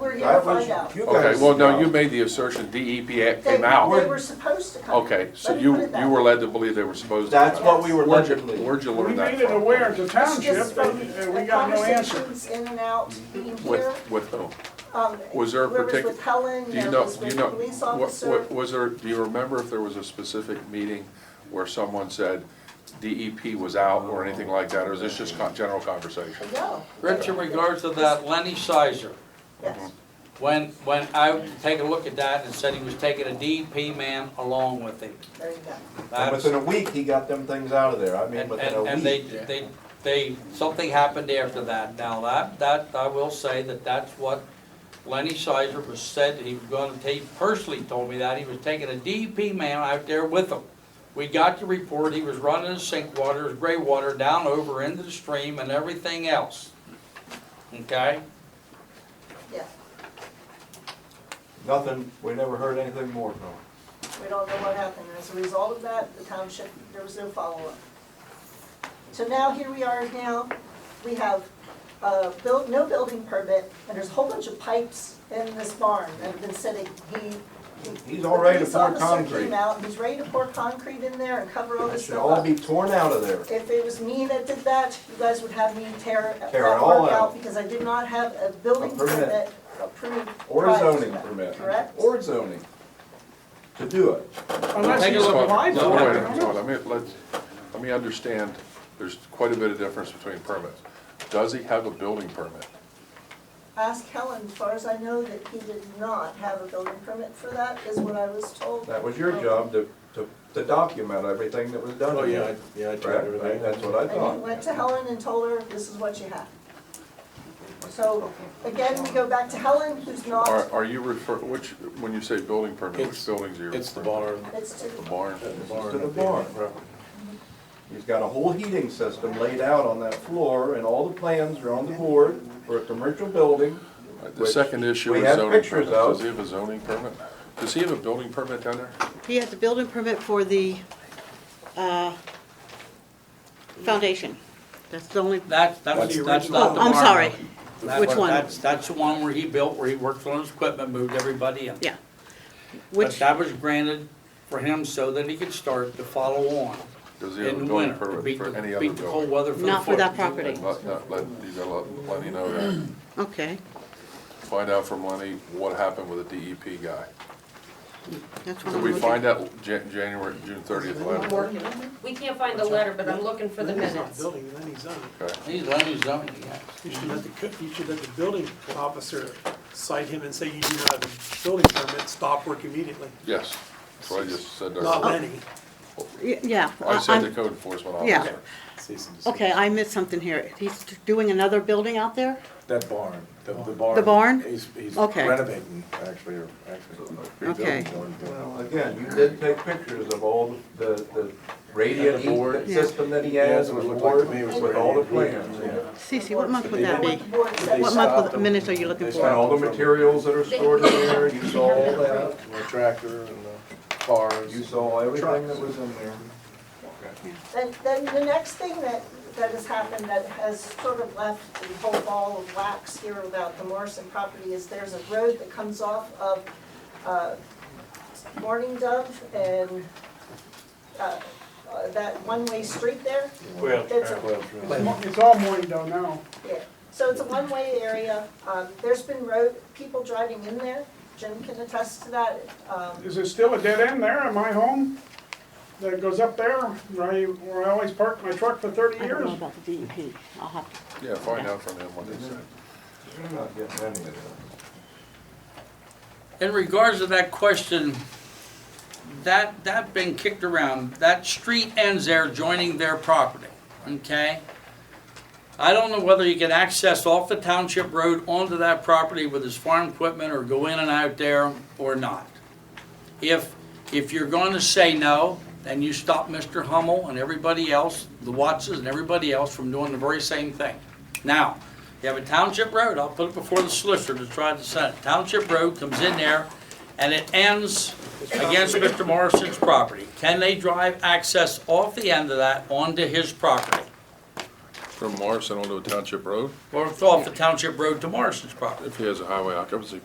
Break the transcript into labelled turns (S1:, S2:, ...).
S1: That
S2: didn't
S1: was,
S2: find out.
S1: you guys.
S3: Okay, well, no, you made the assertion DEP a-
S2: They,
S3: came
S2: they
S3: out.
S2: were supposed to come.
S3: Okay, so
S2: Let me
S3: you,
S2: put it that
S3: you were
S2: way.
S3: led to believe they were supposed to.
S1: That's
S3: come out.
S1: what we were
S3: Where'd you-
S1: led to believe.
S3: Where'd you
S4: We
S3: learn that
S4: made it
S3: from?
S4: aware to
S2: It's just
S4: township, and
S2: from
S4: and we
S2: the
S4: got no answer.
S2: conversations In and out, being here.
S3: With, with who?
S2: um,
S3: Was there a
S2: whoever's
S3: particular?
S2: with Helen,
S3: Do you
S2: there
S3: know,
S2: was
S3: do you
S2: with
S3: know,
S2: police
S3: what-
S2: officer.
S3: what- was there, do you remember if there was a specific meeting where someone said DEP was out or anything like that, or is this just con- general conversation?
S2: No.
S5: Rich, in regards to that Lenny Sizer,
S2: Yes,
S5: when, when I take a look at that and said he was taking a DEP man along with him.
S2: there you go.
S1: And
S5: That's-
S1: within a week, he got them things out of there. I mean,
S5: And,
S1: within
S5: and,
S1: a
S5: and they,
S1: week.
S5: they, they, something happened after that. Now, that, that, I will say that that's what Lenny Sizer was said, that he was gonna take, personally told me that, he was taking a DEP man out there with him. We got the report, he was running his sink water, his gray water down over into the stream and everything else. Okay?
S2: Yeah,
S1: Nothing, we never heard anything more from them.
S2: we don't know what happened. As a result of that, the township, there was no follow-up. So now, here we are now, we have, uh, built, no building permit, and there's a whole bunch of pipes in this barn that have been sitting. He. he-
S1: He's all ready to
S2: the police
S1: pour
S2: officer
S1: concrete.
S2: came out, he's ready to pour concrete in there and cover all
S1: It
S2: this
S1: should
S2: stuff
S1: all
S2: up.
S1: be torn out of there.
S2: If it was me that did that, you guys would have me tear that
S1: Tear it all
S2: work
S1: out.
S2: out because I did not have a building
S1: A permit.
S2: permit approved
S1: Or
S2: prior to
S1: zoning
S2: that,
S1: permit.
S2: Correct?
S1: Or zoning. To do it.
S4: Unless
S5: Take a
S4: he's
S5: look.
S4: applied
S3: No, wait,
S4: for
S3: no,
S4: it.
S3: no, Let me, let's, let me understand, there's quite a bit of difference between permits. Does he have a building permit?
S2: Ask Helen, as far as I know, that he did not have a building permit for that, is what I was told.
S1: That was your job to, to, to document everything that was done.
S6: Oh, yeah, I- yeah, I tried
S1: Correct?
S6: everything.
S1: That's what I
S2: And he
S1: thought.
S2: went to Helen and told her, this is what you have. So, again, we go back to Helen, who's
S3: Are,
S2: not,
S3: are you refer, which, when you say building permit, which
S6: It's-
S3: buildings are you referring?
S6: It's the barn.
S2: it's to,
S3: The barn?
S1: To the barn. He's got a whole heating system laid out on that floor, and all the plans are on the board for a commercial building.
S3: Uh, The second issue
S1: we
S3: is
S1: have
S3: zoning
S1: pictures
S3: permit.
S1: of.
S3: Does he have a zoning permit? Does he have a building permit down there?
S7: He has a building permit for the, uh, foundation. That's the only,
S5: That's, that's,
S6: That's-
S5: that's not
S7: oh,
S5: the
S7: I'm
S5: barn.
S7: sorry,
S5: That's-
S7: Which one?
S5: That's, that's the one where he built, where he worked on his equipment, moved everybody in.
S7: yeah.
S5: But
S7: Which,
S5: that was granted for him so that he could start to follow on
S3: Does he have a
S5: in the
S3: building
S5: winter, to
S3: permit
S5: beat
S3: for any
S5: the,
S3: other
S5: beat the cold
S3: building?
S5: weather for the
S7: Not for
S5: Fourth.
S7: that property.
S3: Let, let, let, you gotta let Lenny know that.
S7: okay,
S3: Find out from Lenny what happened with the DEP guy.
S7: that's what
S3: Did
S7: I'm
S3: we
S7: looking.
S3: find out Jan- January, June thirtieth letter?
S8: We can't find the letter, but I'm looking for the minutes.
S9: Building, and then he's on.
S3: Okay.
S5: He's Lenny zoning, yes.
S9: You should let the, co- you should let the building officer cite him and say you do not have a building permit, stop work immediately.
S3: Yes, that's what I just said. there.
S9: Not Lenny.
S7: Y- Yeah.
S3: I said the
S7: I'm-
S3: code enforcement
S7: Yeah.
S3: officer.
S7: Okay, I missed something here. He's doing another building out there?
S6: That barn, the, the barn.
S7: The barn?
S6: He's, he's
S7: Okay.
S6: renovating, actually, or actually.
S7: Okay.
S6: rebuilding the barn.
S1: Well, uh, Again, you did take pictures of all the, the radiant
S6: And the board.
S1: heat system that he
S6: Yeah,
S1: has,
S6: that's
S1: with
S6: what it looked
S1: board,
S6: like to me, was
S1: with all the
S6: radiant heat.
S1: plans.
S6: Yeah.
S7: Cece, what month would
S2: I
S7: that
S2: want
S7: be?
S2: the board to-
S7: What month, of minutes are you looking
S6: They
S1: And
S7: for?
S1: all the materials that are stored in there, you saw all that,
S6: And The tractor and the cars.
S1: you saw everything that was in there.
S2: Then, then the next thing that, that has happened that has sort of left the whole ball of wax here about the Morrison property is there's a road that comes off of, uh, Morning Dove and, uh, uh, that one-way street there. It's
S6: uh,
S2: a-
S4: It's all morning though now.
S2: yeah, so it's a one-way area, um, there's been road, people driving in there, Jim can attest to that, um,
S4: Is it still a dead end there at my home? That goes up there, where I, where I always park my truck for thirty
S7: I don't
S4: years?
S7: know about the DEP. I'll have to
S3: Yeah, find out from him what he said.
S1: You're not getting any of that.
S5: In regards to that question, that, that been kicked around, that street ends there joining their property, okay? I don't know whether you can access off the township road onto that property with his farm equipment or go in and out there or not. If, if you're going to say no, then you stop Mr. Hummel and everybody else, the Wattses and everybody else from doing the very same thing. Now, you have a township road, I'll put it before the solicitor to try to send it. Township road comes in there and it ends against Mr. Morrison's property. Can they drive access off the end of that onto his property?
S3: From Morrison onto a township road,
S5: Or off the township road to Morrison's property?
S3: if he has a highway occupancy